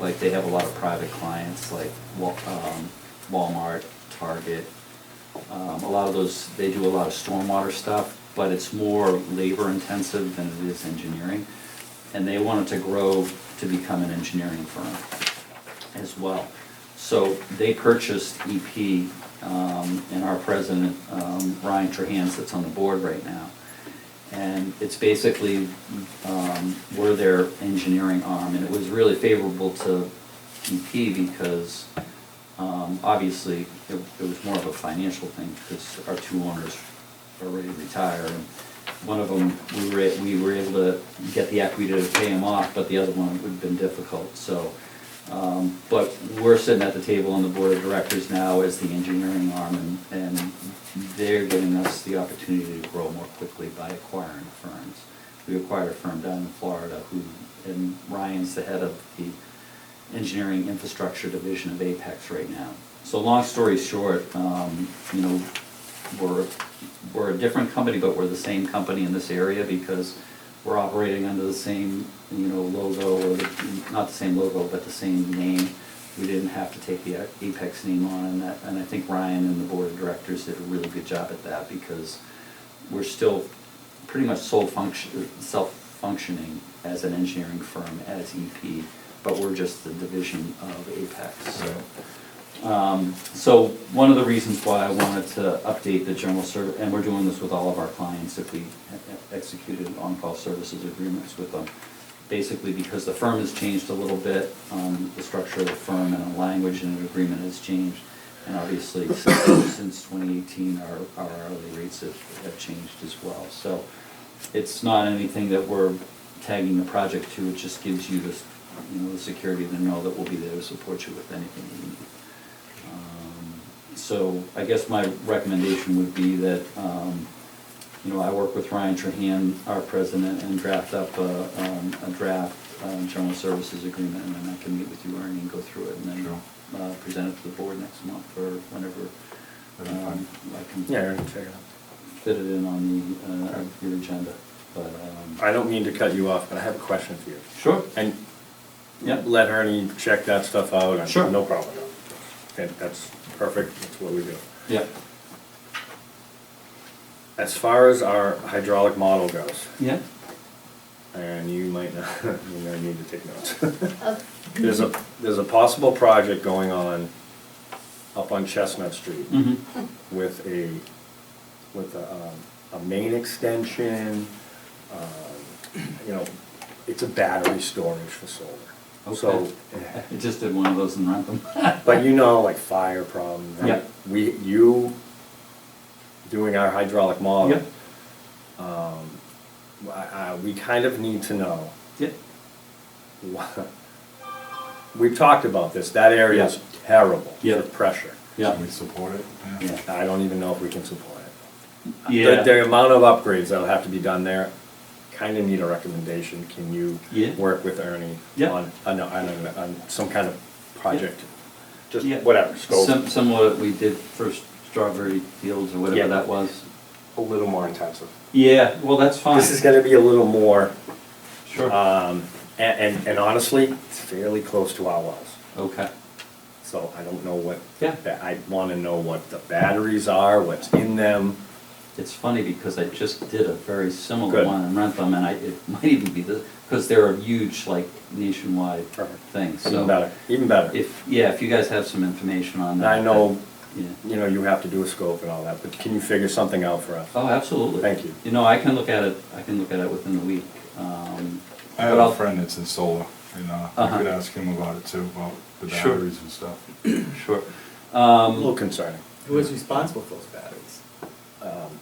like they have a lot of private clients, like Wa- um, Walmart, Target. Um, a lot of those, they do a lot of stormwater stuff, but it's more labor intensive than it is engineering. And they wanted to grow to become an engineering firm as well. So they purchased EP, um, and our president, um, Ryan Trahans, that's on the board right now. And it's basically, um, we're their engineering arm, and it was really favorable to EP because, um, obviously, it, it was more of a financial thing, because our two owners are ready to retire, and one of them, we were, we were able to get the equity to pay him off, but the other one would have been difficult, so, um, But we're sitting at the table on the board of directors now as the engineering arm, and, and they're giving us the opportunity to grow more quickly by acquiring firms. We acquired a firm down in Florida who, and Ryan's the head of the engineering infrastructure division of Apex right now. So long story short, um, you know, we're, we're a different company, but we're the same company in this area because we're operating under the same, you know, logo, or the- not the same logo, but the same name. We didn't have to take the Apex name on, and that, and I think Ryan and the board of directors did a really good job at that because we're still pretty much sole function, self-functioning as an engineering firm, as EP, but we're just the division of Apex, so. Um, So one of the reasons why I wanted to update the general service, and we're doing this with all of our clients if we executed on-call services agreements with them, basically because the firm has changed a little bit, um, the structure of the firm and the language in an agreement has changed. And obviously, since since 2018, our our hourly rates have have changed as well. So it's not anything that we're tagging the project to, it just gives you this, you know, the security to know that we'll be there to support you with anything you need. Um, So I guess my recommendation would be that, um, you know, I work with Ryan Trahan, our president, and draft up a, um, a draft um, general services agreement, and then I can meet with you, Ernie, and go through it, and then uh, present it to the board next month, or whenever That'd be um, I can Yeah, Aaron, check it out. fit it in on the, uh, your agenda, but. um, I don't mean to cut you off, but I have a question for you. Sure. And Yeah. let Ernie check that stuff out. and Sure. No problem. Okay, that's perfect, that's what we do. Yeah, As far as our hydraulic model goes, yeah, and you might not, you might need to take notes. Of There's a, there's a possible project going on up on Chestnut Street mm-hmm, with a, with a, um, a main extension, um, you know, it's a battery storage for solar. So, I just did one of those in Rantham. but you know, like fire problems, Yeah. right? We, you, doing our hydraulic model. Um, I, I, we kind of need to know Yeah, We've talked about this, that area is terrible Yeah. for pressure. yeah, Can we support it? yeah. I don't even know if we can support it. Yeah. The, the amount of upgrades that'll have to be done there, kinda need a recommendation, can you Yeah. work with Ernie Yeah. on, on, on, on some kind of project? Just Yeah. whatever, scope, Sim- Similar, we did for Strawberry Fields or Yeah. whatever that was. a little more intensive. Yeah, well, that's fine. This is gonna be a little more, Sure. um, a- and, and honestly, it's fairly close to our wells. Okay, So I don't know what. Yeah. ba- I wanna know what the batteries are, what's in them. it's funny because I just did a very similar Good. one in Rentham and I, it might even be the, because they're a huge like nationwide Perfect. thing, Even so. better, even better. If, yeah, if you guys have some information on that. I know, Yeah. you know, you have to do a scope and all that, but can you figure something out for us? Oh, absolutely. Thank you. You know, I can look at it, I can look at it within the week. um, I have but I'll- a friend that's in solar, and uh, I Uh-huh. could ask him about it too, about the Sure. batteries and stuff. Sure. Um, A little concerning. Who is responsible for those batteries? Um,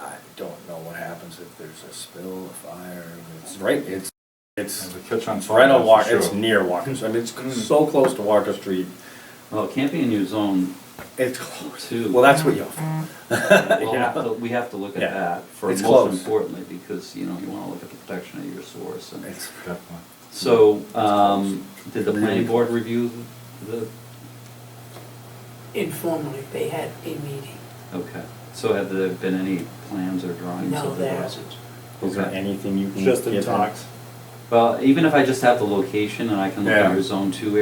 I don't know what happens if there's a spill, a fire, it's right, it's, it's, And the catch on it's right fire, on Walker, that's it's for near Walker, I mean, it's so close to Walker Street. Well, it can't be in your zone It's close. Two. Well, that's what you offer. We'll have to, we have to look at Yeah. that for It's most close. importantly, because, you know, you wanna look at the protection of your source and. It's- sure, Definitely. So, um, did the planning Really? board review the, informally, they had a meeting. okay, so have there been any plans or drawings No, of the there house? hasn't. Is there Okay. anything you can? Just in give him? talks. Well, even if I just have the location and I can look Yeah. at your zone two